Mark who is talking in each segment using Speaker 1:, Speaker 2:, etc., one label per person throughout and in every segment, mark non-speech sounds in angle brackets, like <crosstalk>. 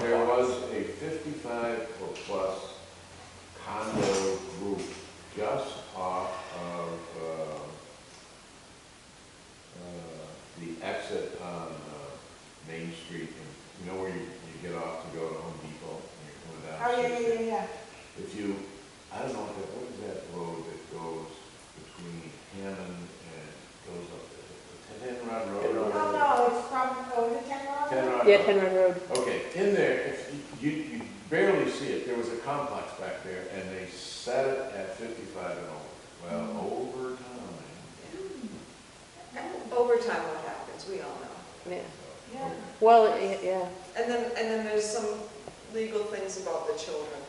Speaker 1: There was a fifty-five or plus condo group just off of, uh, uh, the exit on, uh, Main Street, and you know where you, you get off to go to Home Depot, and you're
Speaker 2: Oh,
Speaker 1: coming
Speaker 2: yeah,
Speaker 1: down.
Speaker 2: yeah, yeah, yeah.
Speaker 1: If you, I don't know, if that- what is that road that goes between Hammond and goes up, the Ten Rod Road?
Speaker 2: Oh,
Speaker 1: or-
Speaker 2: no, it's from, oh, is it ten dollars?
Speaker 1: Ten Rod
Speaker 3: Yeah,
Speaker 1: Road.
Speaker 3: Penrod Road.
Speaker 1: Okay, in there, if you, you barely see it, there was a complex back there, and they set it at fifty-five and over. Well, over time.
Speaker 4: Overtime, what happens, we all know.
Speaker 3: Yeah.
Speaker 2: Yeah.
Speaker 3: Well, y- yeah,
Speaker 4: And then, and then there's some legal things about the children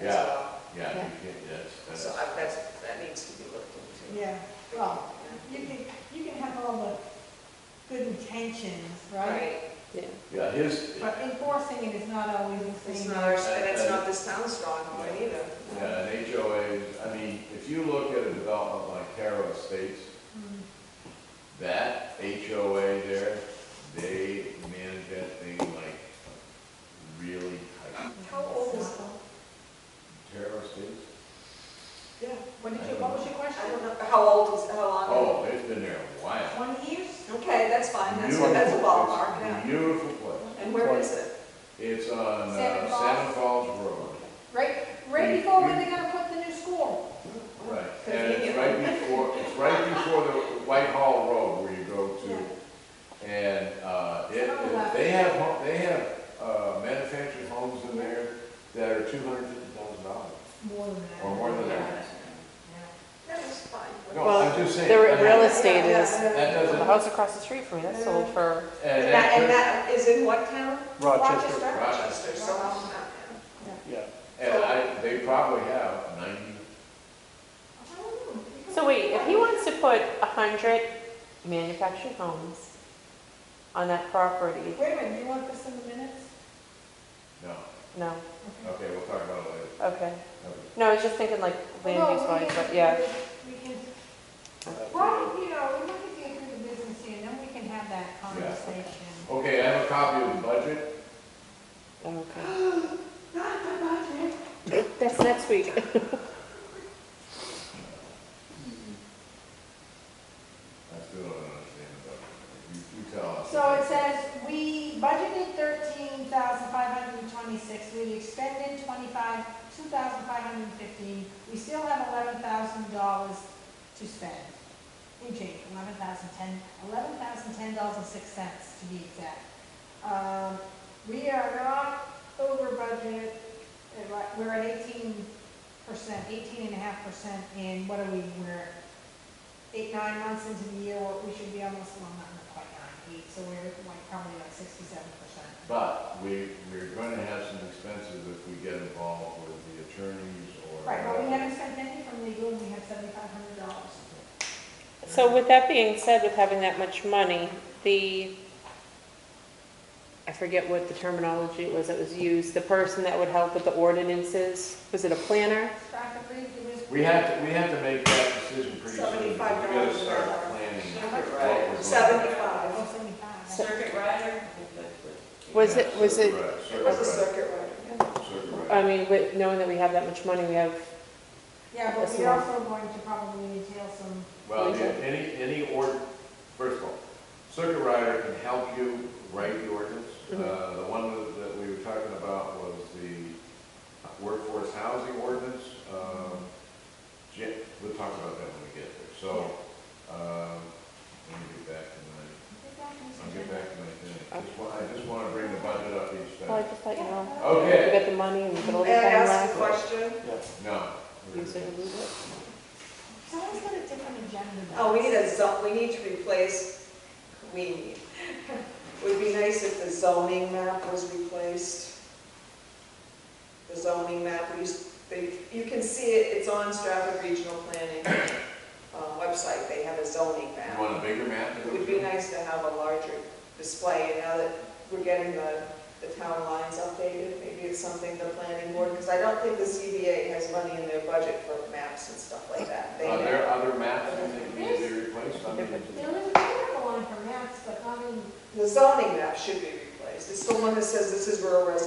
Speaker 4: as
Speaker 1: Yeah.
Speaker 4: well.
Speaker 1: Yeah,
Speaker 3: Yeah.
Speaker 1: you can't, that's,
Speaker 4: So
Speaker 1: that's,
Speaker 4: I- that's, that needs to be looked into.
Speaker 2: Yeah, well, you can, you can have all the good intentions, right?
Speaker 4: Right,
Speaker 3: yeah.
Speaker 1: yeah, his, yeah,
Speaker 2: But enforcing it is not always the
Speaker 4: it's
Speaker 2: same.
Speaker 4: not our, and it's not this town's strong point either.
Speaker 1: an HOA, I mean, if you look at a development like Caro Estates,
Speaker 2: Mm.
Speaker 1: that HOA there, they manage that thing like really tight.
Speaker 4: How old is it?
Speaker 1: Caro Estates,
Speaker 2: Yeah, what did you, what was your question?
Speaker 4: I don't know, how old is, how long?
Speaker 1: oh, it's been there a while.
Speaker 2: Twenty years?
Speaker 4: Okay, that's fine, that's,
Speaker 1: Beautiful
Speaker 4: that's a ballpark,
Speaker 1: place.
Speaker 4: yeah.
Speaker 1: Beautiful place.
Speaker 4: And where is it?
Speaker 1: It's on uh,
Speaker 2: Salmon Falls.
Speaker 1: Salmon Falls Road.
Speaker 2: Right, right before when they're gonna put the new school.
Speaker 1: Right. And it's right before, it's right before the Whitehall Road where you go to. And uh, it, it- they have, ho- they have uh, manufactured homes in there that are two hundred fifty thousand dollars.
Speaker 2: More than that.
Speaker 1: Or more than that.
Speaker 4: That is fine.
Speaker 1: No,
Speaker 3: Well,
Speaker 1: I'm just saying.
Speaker 3: The
Speaker 1: I
Speaker 3: re-
Speaker 1: mean,
Speaker 3: real estate
Speaker 2: Yeah,
Speaker 3: is,
Speaker 1: That
Speaker 2: yeah.
Speaker 3: the
Speaker 1: doesn't,
Speaker 3: house across the street from me, that's sold for,
Speaker 1: and
Speaker 4: And that, and
Speaker 1: that,
Speaker 4: that is in what town?
Speaker 5: Rochester,
Speaker 4: Rochester, so,
Speaker 2: Rochester.
Speaker 4: yeah.
Speaker 5: yeah.
Speaker 1: and I, they probably have ninety,
Speaker 3: so wait, if he wants to put a hundred manufactured homes on that property,
Speaker 2: Wait a minute, you want this in the minutes?
Speaker 1: no,
Speaker 3: no,
Speaker 1: okay, we'll talk about it later.
Speaker 3: okay.
Speaker 1: Okay.
Speaker 3: No, I was just thinking like
Speaker 2: Well,
Speaker 3: land use
Speaker 2: we
Speaker 3: wise,
Speaker 2: can-
Speaker 3: but yeah,
Speaker 2: We can,
Speaker 5: Uh,
Speaker 2: well, you know, we look at the other business here, and then we can have that conversation.
Speaker 1: Okay, I have a copy of the budget.
Speaker 3: Oh, okay. <gasps> That's next week.
Speaker 1: I still don't understand the budget. You, you tell us.
Speaker 2: So it says, we budgeted thirteen thousand five hundred and twenty-six, we expended twenty-five, two thousand five hundred and fifteen, we still have eleven thousand dollars to spend. In change, eleven thousand ten, eleven thousand ten dollars and six cents to be exact. Um, we are not over budget, uh, right, we're at eighteen percent, eighteen and a half percent in, what are we, we're eight, nine months into the year, or we should be almost, well, not quite nine, eight, so we're like probably like sixty-seven percent.
Speaker 1: But we, we're going to have some expenses if we get involved with the attorneys or.
Speaker 2: Right, well, we haven't spent any from legal, and we have seventy-five hundred dollars.
Speaker 3: So with that being said, with having that much money, the, I forget what the terminology was that was used, the person that would help with the ordinances, was it a planner?
Speaker 2: Practically, it was.
Speaker 1: We have to, we have to make that decision pretty soon. because
Speaker 4: Seventy-five
Speaker 1: We gotta
Speaker 4: dollars an
Speaker 1: start
Speaker 4: hour.
Speaker 1: planning. what we're
Speaker 4: Circuit rider.
Speaker 1: going to-
Speaker 4: Seventy-five.
Speaker 2: Oh, seventy-five.
Speaker 6: Circuit rider?
Speaker 3: Was
Speaker 1: Yeah,
Speaker 3: it- was
Speaker 1: circuit
Speaker 3: it-
Speaker 1: rider,
Speaker 4: It was a
Speaker 1: Circuit
Speaker 4: circuit rider.
Speaker 1: rider, circuit
Speaker 3: I
Speaker 1: rider.
Speaker 3: mean, with, knowing that we have that much money, we have,
Speaker 2: Yeah, but
Speaker 3: That's
Speaker 2: we're
Speaker 3: not-
Speaker 2: also going to probably entail some,
Speaker 1: Well, the- any, any ord, first of all, circuit rider can help you write the ordinance.
Speaker 3: Mhm.
Speaker 4: Mm-hmm.
Speaker 1: Uh, the one that- that we were talking about was the workforce housing ordinance. Um, Ja- we'll talk about that when we get there. So, um, let me get back to my I'll get back to my thing. Just wa- I just want to bring the budget up each
Speaker 3: well, I
Speaker 1: time.
Speaker 3: just thought, you know, we
Speaker 1: Okay,
Speaker 3: got the money and we got all the
Speaker 4: May I
Speaker 3: time
Speaker 4: ask a
Speaker 3: left.
Speaker 4: question?
Speaker 1: no.
Speaker 3: Use it or lose it.
Speaker 2: someone's got a different agenda. than
Speaker 4: Oh, we need
Speaker 2: us.
Speaker 4: a zone, we need to replace, we need. Would be nice if the zoning map was replaced. The zoning map, we, used- they, you can see it, it's on Stratford Regional Planning uh, website, they have a zoning
Speaker 1: You
Speaker 4: map.
Speaker 1: want a bigger map?
Speaker 4: It would be nice to have a larger display, and now that we're getting the, the town lines updated, maybe it's something the planning board, because I don't think the CBA has money in their budget for maps and stuff like that. They-
Speaker 1: Are there other maps that need to be replaced? I mean,
Speaker 2: There was a article on for maps, but I mean,
Speaker 4: The zoning map should be replaced. It's the one that says this is rural residential